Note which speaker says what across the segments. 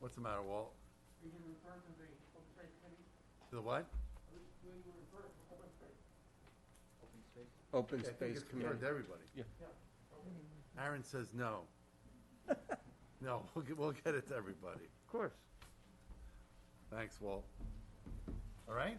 Speaker 1: What's the matter, Walt?
Speaker 2: We can refer to the open space committee,
Speaker 1: To the what?
Speaker 2: we we will refer to open space.
Speaker 3: Open
Speaker 1: I think
Speaker 3: Space
Speaker 1: it's referred to
Speaker 3: Committee.
Speaker 1: everybody. Aaron says no. No, we'll get, we'll get it to everybody.
Speaker 3: Of course.
Speaker 1: Thanks, Walt. All right?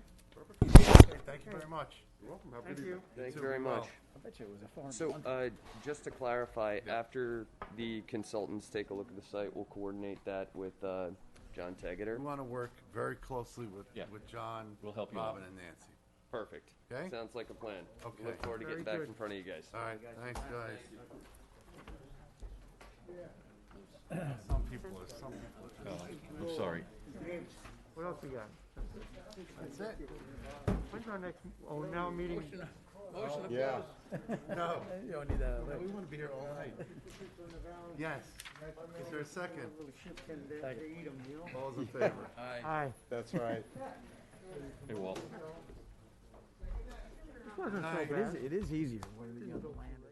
Speaker 1: Okay, thank you very much.
Speaker 4: You're welcome. Have a
Speaker 2: Thank
Speaker 4: good
Speaker 2: you.
Speaker 4: evening.
Speaker 3: Thank
Speaker 1: too,
Speaker 3: you very
Speaker 1: be well.
Speaker 3: much.
Speaker 5: I bet you it was a foreign
Speaker 3: So,
Speaker 5: blunder.
Speaker 3: uh, just to clarify, after the consultants take a look at the site, we'll coordinate that with, uh, John
Speaker 1: We
Speaker 3: Tegater.
Speaker 1: want to work very closely with,
Speaker 6: Yeah.
Speaker 1: with John,
Speaker 6: We'll help you out.
Speaker 1: Robin, and Nancy.
Speaker 3: Perfect.
Speaker 1: Okay.
Speaker 3: Sounds like a plan.
Speaker 1: Okay.
Speaker 3: Look forward to
Speaker 2: Very
Speaker 3: getting back
Speaker 2: good.
Speaker 3: in front of you guys.
Speaker 1: All right, thanks, guys. Some people are, some people are just,
Speaker 6: I'm sorry.
Speaker 2: What else we got?
Speaker 1: that's it?
Speaker 2: When's our next, oh, now meeting,
Speaker 4: Yeah.
Speaker 1: No.
Speaker 5: You don't need that.
Speaker 1: We want to be here all night. Yes. Is there a second? All those in favor?
Speaker 2: aye.
Speaker 4: That's right.
Speaker 6: Hey, Walt.
Speaker 2: This wasn't so
Speaker 1: Aye.
Speaker 5: It
Speaker 2: bad.
Speaker 5: is, it is easier when you know,